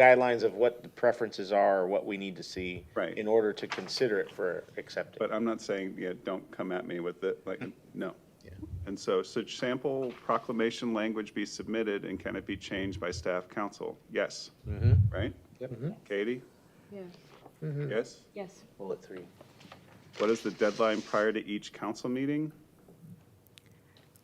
guidelines of what the preferences are, or what we need to see. Right. In order to consider it for accepting. But I'm not saying, yeah, don't come at me with it, like, no. And so, such sample proclamation language be submitted and can it be changed by staff council? Yes. Right? Yep. Katie? Yeah, Yes? yes. Bullet three. What is the deadline prior to each council meeting?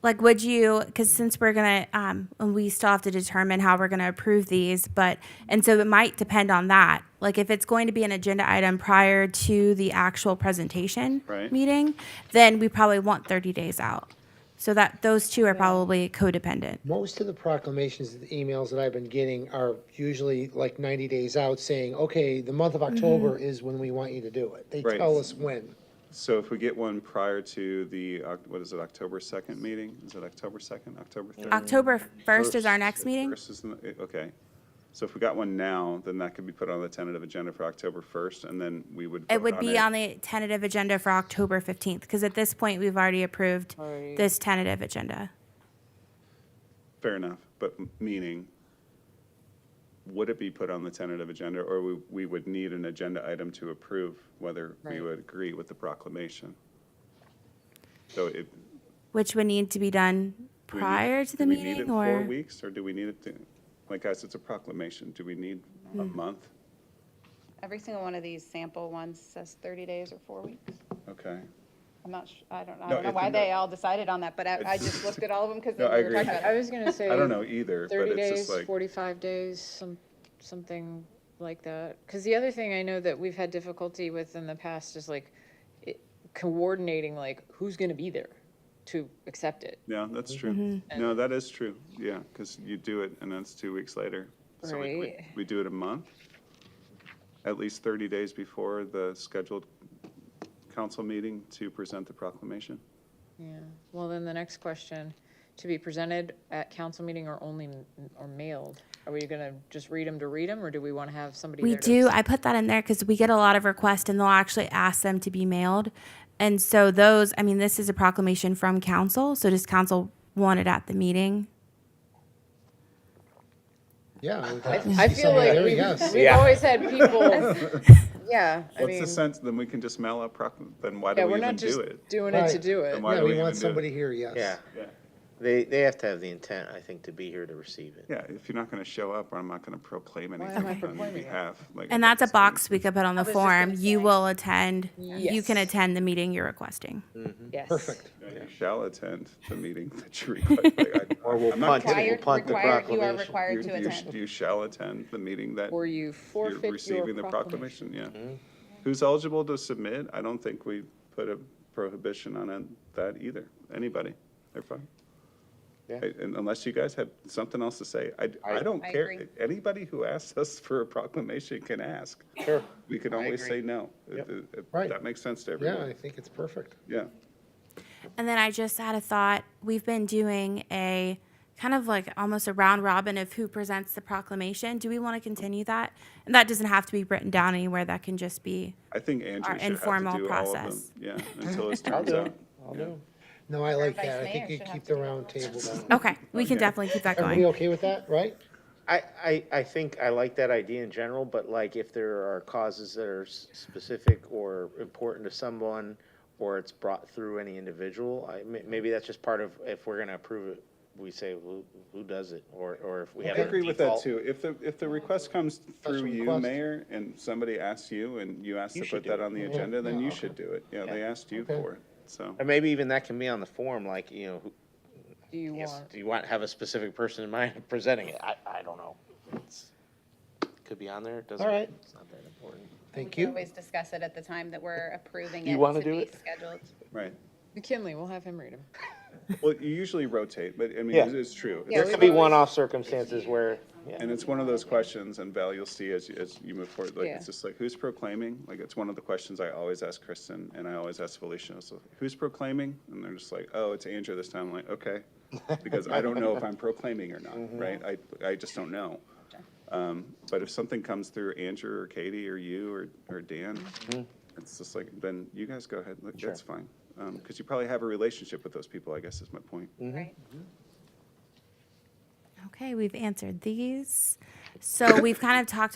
Like, would you, because since we're gonna, um, and we still have to determine how we're gonna approve these, but, and so it might depend on that. Like, if it's going to be an agenda item prior to the actual presentation Right. meeting, then we probably want thirty days out. So that, those two are probably codependent. Most of the proclamations, the emails that I've been getting are usually like 90 days out saying, okay, the month Mm-hmm. of October is when we want you to do it. They Right. tell us when. So if we get one prior to the, Oc- what is it, October 2nd meeting? Is it October 2nd, October 3rd? October first is our next meeting? First is the- Okay. So if we got one now, then that could be put on the tentative agenda for October 1st, and then we would It vote would be on the tentative agenda for October fifteenth, because at this point, we've already approved this tentative agenda. Fair enough, but m- meaning, would it be put on the tentative agenda, or we, we would need an agenda item to approve whether we Right. would agree with the proclamation? So it. Which would need to be done do we need- prior to the do we need it meeting Four or? weeks, or do we need it to, like, guys, it's a proclamation, do we need a Hmm. month? Every single one of these sample ones says 30 days or four weeks. Okay. I'm not, sh- I don't, I No, don't know it's why in they the- all decided on that, but I, I just looked at all of them because they No, I were agree. talking about. I was gonna say. I don't know either, but Thirty it's just days, like, forty-five days, some, something like that. Cause the other thing I know that we've had difficulty with in the past is like it- coordinating, like who's gonna be there to accept it. yeah, that's true. No, that is true, yeah, because you do it, and then it's two weeks later. So we- we- Right. We do it a month, at least 30 days before the scheduled council meeting to present the proclamation. Yeah. Well, then the next question, to be presented at council meeting or only, m- or mailed? Are we gonna just read them to read them or do we wanna have somebody We there to do. I put that in there because we get a lot of requests and they'll actually ask them to be mailed. And so those, I mean, this is a proclamation from council, so does council want it at the meeting? Yeah. I would I think I so. feel like There we we've, go. we've Yeah. always had people, yeah, I What's mean, the sense, then we can just mail out proclam, then why yeah, do we we're even not just do it? doing it to Right. do it. why Yeah, do we we even want do it? somebody here, yes. Yeah. Yeah. They, they have to have the intent, I think, to be here to receive it. Yeah, if you're not going to show up, I'm not going to proclaim am I anything on your proclaiming it? behalf. like, And I that's a just don't- box we could put on the just gonna form. You say. will attend, you can Yes. attend the meeting you're requesting. Yes. Perfect. You shall attend the meeting that you request. Like, I- Or we'll I'm punt not it. kidding. We'll Required, punt the required, you are proclamation. required You- to you sh- attend. You shall attend the meeting that Or you you're forfeit your receiving the proclamation. proclamation, yeah. Who's eligible to submit? I don't think we put a prohibition on it, that either. Anybody? They're fine. Yeah. I- and Unless you guys have something else to say, I, I I- don't I care. agree. Anybody who asks us for a proclamation can ask. Sure. We can always say agree. no. If- if Right. That makes sense to Yeah, I everyone. think it's perfect. Yeah. And then I just had a thought. We've been doing a kind of like almost a round robin of who presents the proclamation. Do we want to continue that? And that doesn't have to be written down anywhere. That can just be, I think Andrew Our should have informal to do all of them. process. Yeah, until it turns out. I'll do. No, I like vice that. I mayor think you should keep have the to do round table down. okay, we can definitely keep that Everybody going. okay with that, right? I, I, I think I like that idea in general, but like if there are causes that are s- specific or important to someone, or it's brought through any individual, I, may- maybe that's just part of, if we're gonna approve it, we say, who, who does it, or, or if we have I a agree with that default. too. If the, if the request comes through you, request. Mayor, and somebody asks you and you ask You to should put do that it. on the agenda, then Yeah, you okay. should do it. Yeah, they asked you Okay. for it, so. And maybe even that can be on the form, like, you know, who, Do you yes, want? do you want, have a specific person in mind presenting it? I, I don't know. It's- Could be on there, it doesn't. All right. It's not that important. Thank We you. always discuss it at the time that we're approving it. You wanna to do be it? Scheduled. Right. McKinley, we'll have him read them. Well, you usually rotate, but I mean, Yeah. it is true. There could be one-off circumstances where, yeah. And it's one of those questions, and Val, you'll see as, you- as you move forward, like, Yeah. it's just like, who's proclaiming? Like, it's one of the questions I always ask Kristen, and I always ask Felicia, so, who's proclaiming? And they're just like, oh, it's Andrew this time, I'm like, okay. Because I don't know if I'm proclaiming or not, right? I, I just don't know. Um, but if something comes through Andrew or Katie or you or, or Dan, it's just like, then you guys go ahead, Look, that's fine. Um, cause you probably have a relationship with those people, I guess is my point. Right. Okay, we've answered these. So we've kind of talked